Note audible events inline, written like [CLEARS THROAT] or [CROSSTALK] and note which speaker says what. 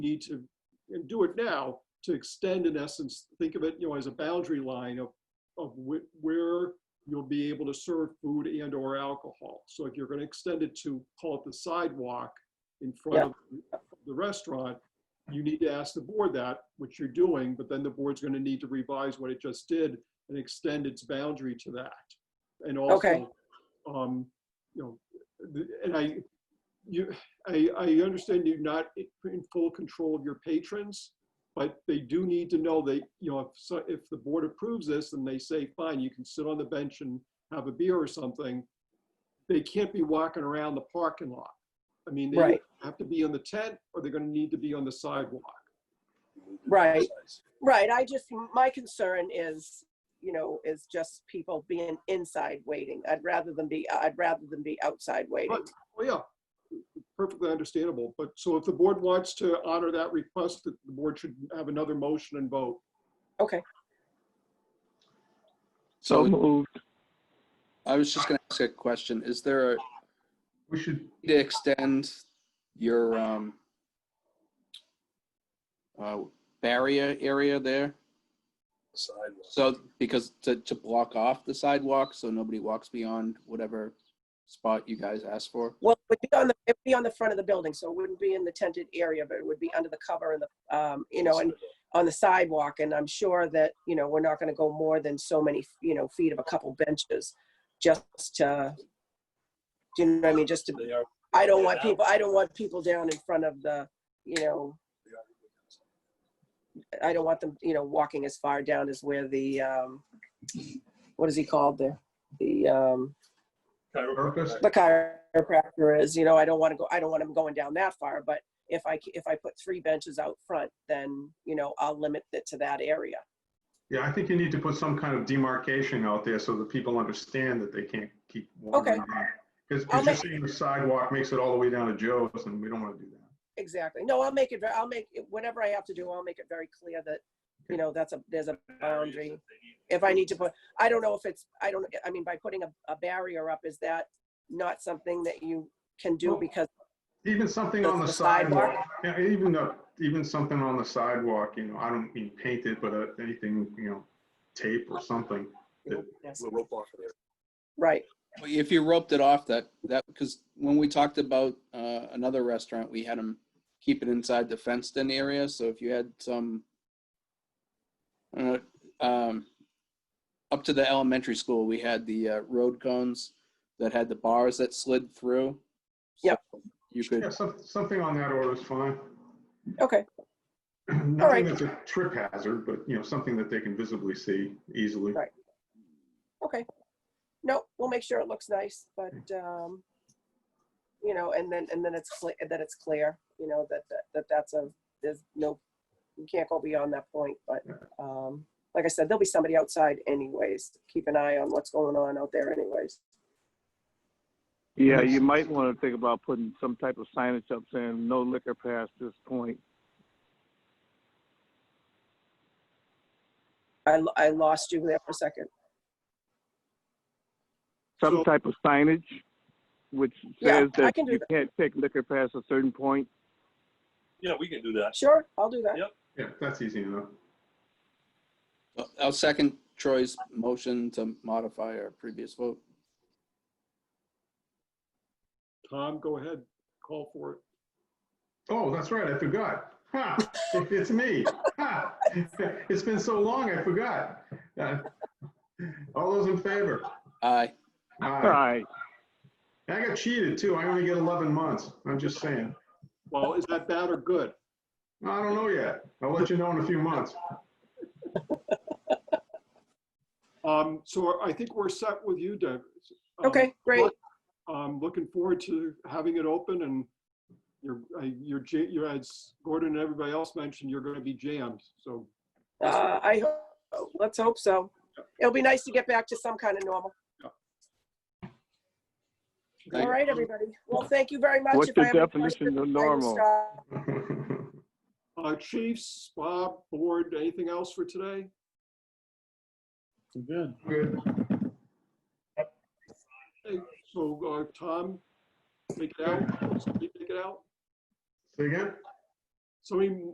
Speaker 1: need to, and do it now, to extend in essence, think of it, you know, as a boundary line of, of wh- where you'll be able to serve food and or alcohol. So if you're gonna extend it to, call it the sidewalk in front
Speaker 2: Yeah.
Speaker 1: of the restaurant, you need to ask the board that, which you're doing, but then the board's gonna need to revise what it just did and extend its boundary to that. And
Speaker 2: Okay.
Speaker 1: also, um, you know, the- and I, you, I, I understand you're not i- in full control of your patrons, but they do need to know that, you know, if, so- if the board approves this and they say, fine, you can sit on the bench and have a beer or something, they can't be walking around the parking lot. I mean, they
Speaker 2: Right.
Speaker 1: have to be on the tent or they're gonna need to be on the sidewalk.
Speaker 2: Right, right. I just, my concern is, you know, is just people being inside waiting. I'd rather than be, I'd rather than be outside waiting.
Speaker 1: Well, Oh, yeah, perfectly understandable. But so if the board wants to honor that request, the the board should have another motion and vote.
Speaker 2: Okay,
Speaker 3: So
Speaker 4: So
Speaker 3: moved.
Speaker 4: I was just going to ask a question. Is there a,
Speaker 5: We should,
Speaker 4: to extend your um, uh, barrier area there? So, because to, to block off the sidewalk so nobody walks beyond whatever spot you guys asked for?
Speaker 6: Mm-hmm.
Speaker 2: well, it would be on the, it'd be on the front of the building, so it wouldn't be in the tented area, but it would be under the cover and the, um, you know, and on the sidewalk, and I'm sure that, you know, we're not gonna go more than so many, you know, feet of a couple benches, just to, do you know what I mean, just to,
Speaker 6: They are,
Speaker 2: I don't want people, I don't want people down in front of the, you know, I don't want them, you know, walking as far down as where the, um, what is he called there? The, um,
Speaker 5: Marcus,
Speaker 2: the chiropractor is, you know, I don't want to go, I don't want him going down that far, but if I, c- if I put three benches out front, then, you know, I'll limit it to that area.
Speaker 5: yeah, I think you need to put some kind of demarcation out there so that people understand that they can't keep
Speaker 2: Okay.
Speaker 5: wandering around. Because
Speaker 2: I'll
Speaker 5: you're
Speaker 2: make-
Speaker 5: saying the sidewalk makes it all the way down to Joe's and we don't want to do that.
Speaker 2: Exactly. No, I'll make it, ve- I'll make, it- whatever I have to do, I'll make it very clear that, you know, that's a, there's a boundary. If I need to put, I don't know if it's, I don't, I mean, by putting a, a barrier up, is that not something that you can do
Speaker 5: Well,
Speaker 2: because,
Speaker 5: Even something on
Speaker 2: The-
Speaker 5: the
Speaker 2: the sidewalk?
Speaker 5: sidewalk, yeah, even, a- even something on the sidewalk, you know, I don't mean paint it, but uh, anything, you know, tape or something.
Speaker 2: Yes.
Speaker 6: we're rope off there.
Speaker 2: right,
Speaker 4: If you roped it off, that, that, because when we talked about uh, another restaurant, we had them keep it inside the fenced-in area, so if you had some, I don't know, um, up to the elementary school, we had the uh, road cones that had the bars that slid through.
Speaker 2: Yep.
Speaker 4: So You
Speaker 5: Yeah,
Speaker 4: could,
Speaker 5: some- something on that order is fine. [CLEARS THROAT]
Speaker 2: okay, right.
Speaker 5: Nothing that's a trip hazard, but, you know, something that they can visibly see easily.
Speaker 2: Right. okay. No, we'll make sure it looks nice, but,
Speaker 3: Hmm.
Speaker 2: um, you know, and then, and then it's, cle- that it's clear, you know, that, that- that that's a, there's no, you can't go beyond that point, but, um, like I said, there'll be somebody outside anyways. Keep an eye on what's going on out there anyways.
Speaker 3: Yeah, you might want to think about putting some type of signage up saying no liquor past this point.
Speaker 2: I, lo- I lost you there for a second.
Speaker 3: Some
Speaker 1: So-
Speaker 3: type of signage which
Speaker 2: Yeah,
Speaker 3: says
Speaker 2: I
Speaker 3: that
Speaker 2: can do
Speaker 3: you
Speaker 2: that.
Speaker 3: can't take liquor past a certain point.
Speaker 6: Yeah, we can do that.
Speaker 2: Sure, I'll do that.
Speaker 6: Yep.
Speaker 5: Yeah, that's easy enough.
Speaker 4: I'll uh, second Troy's motion to modify our previous vote.
Speaker 1: Tom, go ahead, call for it.
Speaker 5: Oh, that's right, I forgot. Ha, it's me. Ha, [LAUGHS] it's been so long, I forgot. Uh, All those in favor?
Speaker 4: Aye.
Speaker 3: All
Speaker 5: Aye.
Speaker 3: right.
Speaker 5: I got cheated too, I only get 11 months, I'm just saying.
Speaker 1: Well, is that bad or good?
Speaker 5: I don't know yet, I'll let you know in a few months. [LAUGHS]
Speaker 1: Um, so I think we're set with you, Deb. Um,
Speaker 2: Okay, great.
Speaker 1: I'm looking forward to having it open and you're, uh, you're, ja- you're, as Gordon and everybody else mentioned, you're gonna be jammed, so.
Speaker 2: Uh, I hope, let's hope so. It'll be nice to get back to some kind of normal.
Speaker 4: Thank
Speaker 2: All right, everybody. Well, thank you very much.
Speaker 3: What's
Speaker 2: If I
Speaker 3: the
Speaker 2: have any
Speaker 3: definition of
Speaker 2: questions, I will
Speaker 3: normal?
Speaker 2: stop.
Speaker 1: Uh, chiefs, Bob, board, anything else for today?
Speaker 6: Good.
Speaker 5: Good.
Speaker 1: Hey, So, uh, Tom, take it out, Steve, take it out.
Speaker 5: Say again?
Speaker 1: so many